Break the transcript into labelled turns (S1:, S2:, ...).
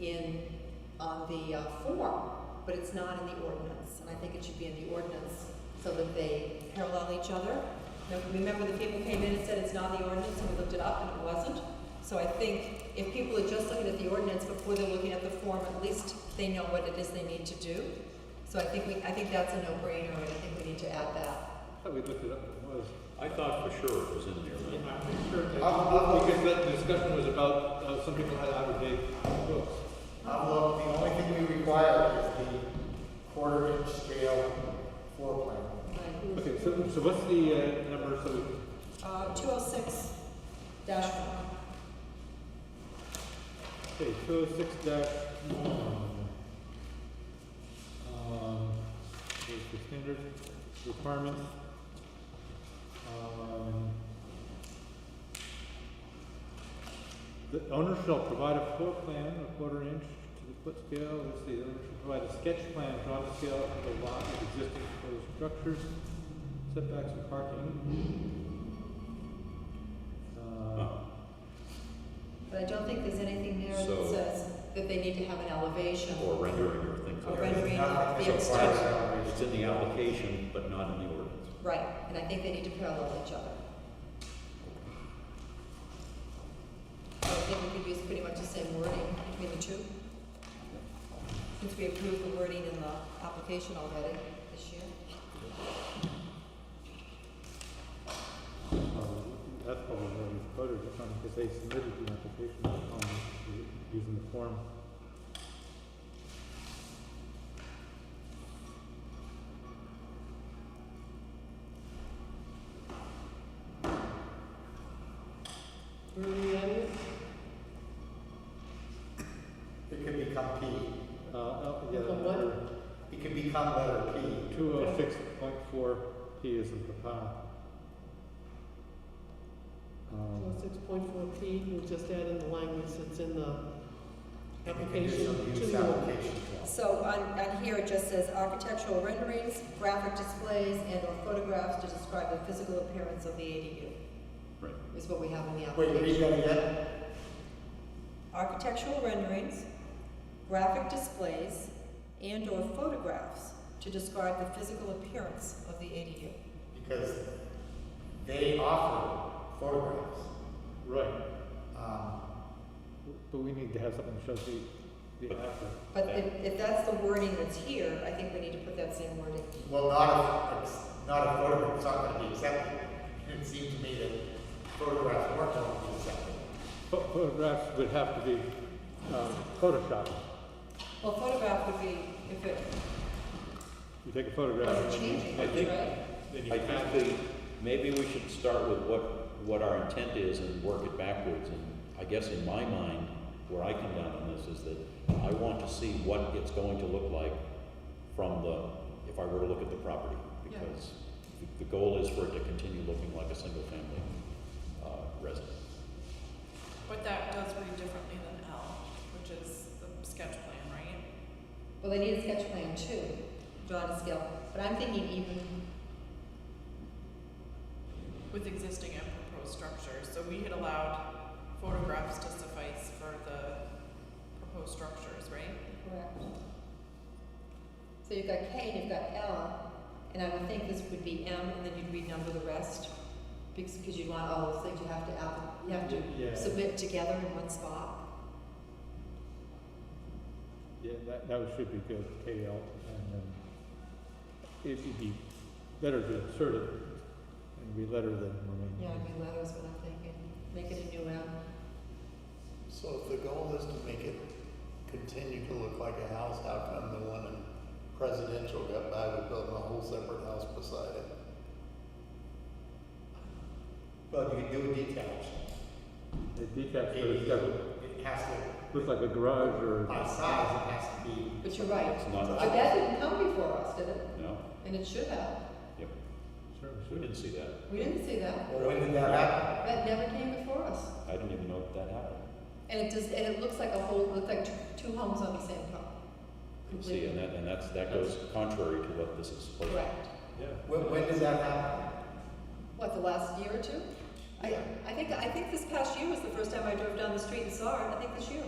S1: in, on the uh, form, but it's not in the ordinance, and I think it should be in the ordinance so that they parallel each other. Now, remember the people came in and said it's not in the ordinance, and we looked it up and it wasn't? So I think if people are just looking at the ordinance before they're looking at the form, at least they know what it is they need to do. So I think we, I think that's a no-brainer, and I think we need to add that.
S2: I thought we looked it up, it was.
S3: I thought for sure it was in there.
S2: I'm pretty sure that,
S4: I'll- I'll-
S2: because that discussion was about, uh, some people had out-of-date books.
S4: Uh, well, the only thing we require is the quarter inch scale floor plan.
S2: Okay, so, so what's the, uh, number, so,
S1: Uh, two oh six dash one.
S2: okay, two oh six dash one. Um, there's the standard requirements. Um, The owner shall provide a floor plan, a quarter inch to the foot scale, let's see, the owner shall provide a sketch plan drawn to scale of the lot of existing proposed structures, setbacks and parking. Uh,
S1: But I don't think there's anything there that
S3: So-
S1: says that they need to have an elevation.
S3: Or rendering or things
S1: Or
S3: like
S1: rendering.
S3: that.
S4: There's nothing that
S1: The
S4: requires
S1: extent.
S4: elevation.
S3: It's in the application, but not in the ordinance.
S1: Right, and I think they need to parallel each other. So I think we could use pretty much the same wording between the two. Since we approved the wording in the application already this year.
S2: Um, That's probably where we voted it from, because they submitted the application on, using the form.
S4: It could become P.
S2: Uh, oh, yeah.
S5: Become
S4: It could become letter P.
S2: Two oh six point four P is in Papa. Um,
S5: Six point four P, we'll just add in the language that's in the
S4: And we can do
S5: application.
S4: some
S5: to
S4: use
S5: the-
S4: application.
S1: So on, on here, it just says architectural renderings, graphic displays, and or photographs to describe the physical appearance of the ADU,
S3: Right.
S1: is what we have in the application.
S4: Wait, read that again?
S1: architectural renderings, graphic displays, and/or photographs to describe the physical appearance of the ADU.
S4: Because they offer photographs.
S2: Right,
S4: Um,
S2: but we need to have something that shows the, the after.
S1: But if, if that's the wording that's here, I think we need to put that same wording.
S4: well, not a, not a photograph, it's not gonna be accepted. It seemed to me that photographs weren't gonna be accepted.
S2: Pho- Photographs would have to be, um, photoshopped.
S1: Well, photograph would be if it
S2: You take a photograph.
S1: was
S2: and
S1: changing,
S3: I think-
S1: right?
S3: I think the, maybe we should start with what, what our intent is and work it backwards. And I guess in my mind, where I come down on this is that I want to see what it's going to look like from the, if I were to look at the property.
S1: Yeah.
S3: Because the- the goal is for it to continue looking like a single-family uh, residence.
S6: But that does read differently than L, which is the sketch plan, right?
S1: Well, they need a sketch plan too, drawn to scale, but I'm thinking even,
S6: With existing and proposed structures, so we had allowed photographs to suffice for the proposed structures, right?
S1: correct. So you've got K and you've got L, and I would think this would be M, and then you'd renumber the rest, because, because you'd want all those things, you have to add, you have to
S2: Yeah.
S1: submit together in one spot.
S2: Yeah, that, that would- should be good, KL, and then it'd be better to insert it and be letter than remain.
S1: Yeah, I mean, that was what I'm thinking. Make it a new M.
S7: So if the goal is to make it continue to look like a house, how come the one in Presidential got by with building a whole separate house beside it?
S4: Well, you can do a detached.
S2: The detached, but it's got,
S4: It has to,
S2: looks like a garage
S4: by
S2: or,
S4: size, it has to be
S1: But you're right.
S3: It's not,
S1: But that didn't come before us, did it?
S3: no,
S1: And it should have.
S3: yep,
S2: certainly
S3: we
S2: should.
S3: didn't see that.
S1: We didn't see that.
S4: Well, when did that happen?
S1: That never came before us.
S3: I didn't even know that happened.
S1: And it does, and it looks like a whole, it looked like two, two homes on the same property.
S3: You See, and that, and that's, that goes contrary to what this is supposed to be.
S1: Correct.
S2: Yeah.
S4: When, when does that happen?
S1: What, the last year or two? I, I think, I think this past year was the first time I drove down the street and saw it. I think this year.